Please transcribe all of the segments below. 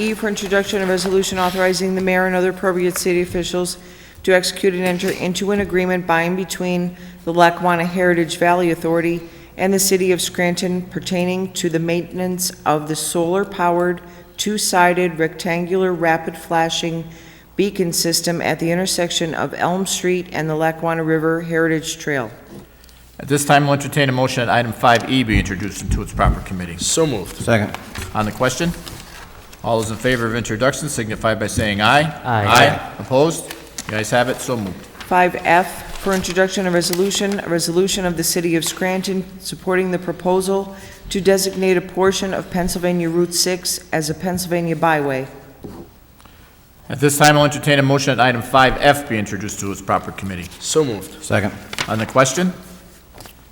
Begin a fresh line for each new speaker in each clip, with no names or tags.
E for introduction of resolution authorizing the mayor and other appropriate city officials to execute and enter into an agreement by and between the Lackawanna Heritage Valley Authority and the city of Scranton pertaining to the maintenance of the solar-powered, two-sided rectangular rapid flashing beacon system at the intersection of Elm Street and the Lackawanna River Heritage Trail.
At this time, we'll entertain a motion that item 5E be introduced into its proper committee.
So moved.
Second.
On the question, all those in favor of introduction signify by saying aye.
Aye.
Aye. Opposed? The ayes have it, so moved.
5F for introduction of resolution, a resolution of the City of Scranton supporting the proposal to designate a portion of Pennsylvania Route 6 as a Pennsylvania byway.
At this time, I'll entertain a motion that item 5F be introduced to its proper committee.
So moved.
Second.
On the question,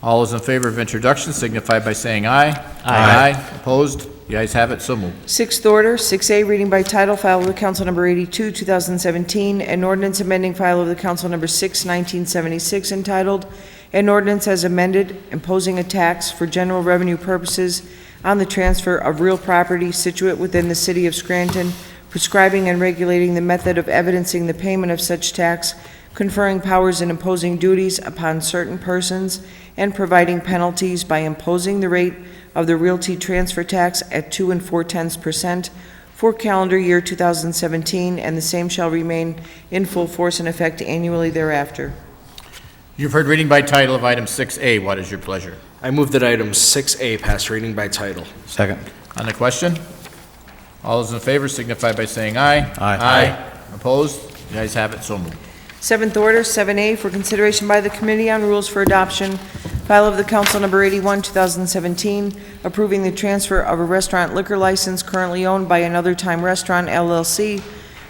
all those in favor of introduction signify by saying aye.
Aye.
Opposed? The ayes have it, so moved.
Sixth order, 6A, reading by title, file of the council number 82, 2017, an ordinance amending file of the council number 6, 1976, entitled, "An Ordinance as Amended Imposing a Tax for General Revenue Purposes on the Transfer of Real Property Situate Within the City of Scranton, Prescribing and Regulating the Method of Evidencing the Payment of Such Tax, Conferring Powers and Imposing Duties Upon Certain Persons, and Providing Penalties by Imposing the Rate of the realty transfer tax at 2 and 4 tenths percent for calendar year 2017, and the same shall remain in full force and effect annually thereafter.
You've heard reading by title of item 6A. What is your pleasure?
I move that item 6A pass reading by title.
Second.
On the question, all those in favor signify by saying aye.
Aye.
Aye. Opposed? The ayes have it, so moved.
Seventh order, 7A, for consideration by the Committee on Rules for Adoption, file of the Council Number 81, 2017, approving the transfer of a restaurant liquor license currently owned by Another Time Restaurant LLC,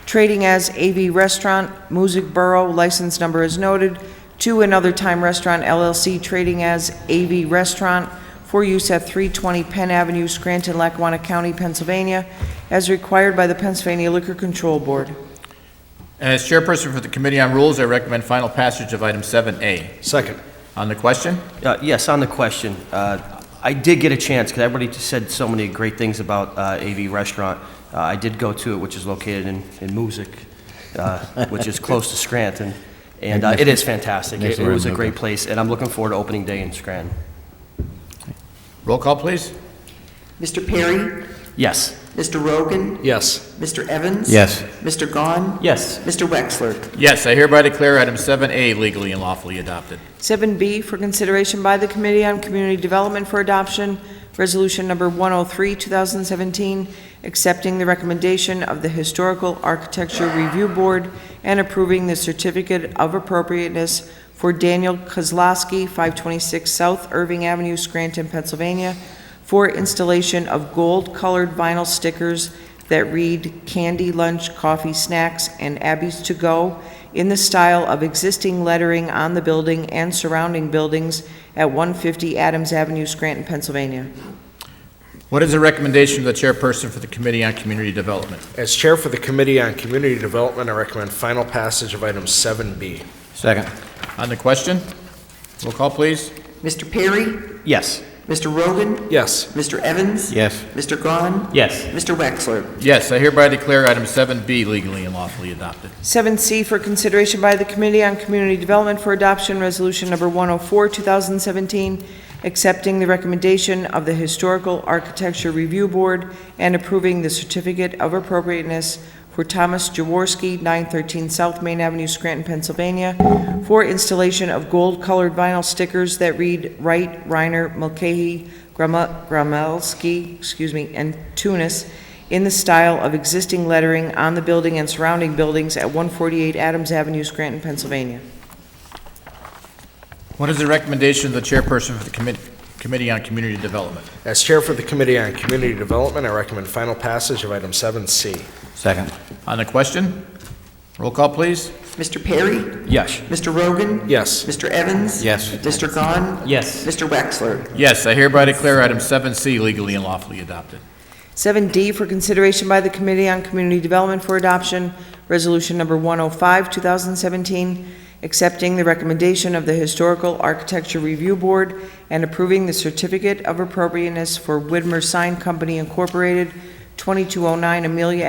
trading as AV Restaurant, Music Borough, license number is noted, to Another Time Restaurant LLC, trading as AV Restaurant, for use at 320 Penn Avenue, Scranton, Lackawanna County, Pennsylvania, as required by the Pennsylvania Liquor Control Board.
As chairperson for the Committee on Rules, I recommend final passage of item 7A.
Second.
On the question,
Uh, Yes, on the question, uh, I did get a chance, because everybody just said so many great things about uh, AV Restaurant. Uh, I did go to it, which is located in in Moosic, uh, which is close to Scranton, and uh, it is fantastic.
Next
It
to
it was a
Rambuca.
great place, and I'm looking forward to opening day in Scranton.
roll call, please.
Mr. Perry?
Yes.
Mr. Rogan?
Yes.
Mr. Evans?
Yes.
Mr. Gahn?
Yes.
Mr. Wexler?
Yes, I hereby declare item 7A legally and lawfully adopted.
7B for consideration by the Committee on Community Development for Adoption, Resolution Number 103, 2017, accepting the recommendation of the Historical Architecture Review Board and approving the Certificate of Appropriateness for Daniel Kozlowski, 526 South Irving Avenue, Scranton, Pennsylvania, for installation of gold-colored vinyl stickers that read "Candy Lunch, Coffee Snacks, and Abby's To Go" in the style of existing lettering on the building and surrounding buildings at 150 Adams Avenue, Scranton, Pennsylvania.
What is the recommendation of the chairperson for the Committee on Community Development?
As chair for the Committee on Community Development, I recommend final passage of item 7B.
Second.
On the question, roll call, please.
Mr. Perry?
Yes.
Mr. Rogan?
Yes.
Mr. Evans?
Yes.
Mr. Gahn?
Yes.
Mr. Wexler?
Yes, I hereby declare item 7B legally and lawfully adopted.
7C for consideration by the Committee on Community Development for Adoption, Resolution Number 104, 2017, accepting the recommendation of the Historical Architecture Review Board and approving the Certificate of Appropriateness for Thomas Jaworski, 913 South Main Avenue, Scranton, Pennsylvania, for installation of gold-colored vinyl stickers that read Wright, Reiner, Mulcahy, Grama- Gramelski, excuse me, and Tunis in the style of existing lettering on the building and surrounding buildings at 148 Adams Avenue, Scranton, Pennsylvania.
What is the recommendation of the chairperson for the Commit- Committee on Community Development?
As chair for the Committee on Community Development, I recommend final passage of item 7C.
Second.
On the question, roll call, please.
Mr. Perry?
Yes.
Mr. Rogan?
Yes.
Mr. Evans?
Yes.
Mr. Gahn?
Yes.
Mr. Wexler?
Yes, I hereby declare item 7C legally and lawfully adopted.
7D for consideration by the Committee on Community Development for Adoption, Resolution Number 105, 2017, accepting the recommendation of the Historical Architecture Review Board and approving the Certificate of Appropriateness for Widmer Sign Company Incorporated, 2209 Amelia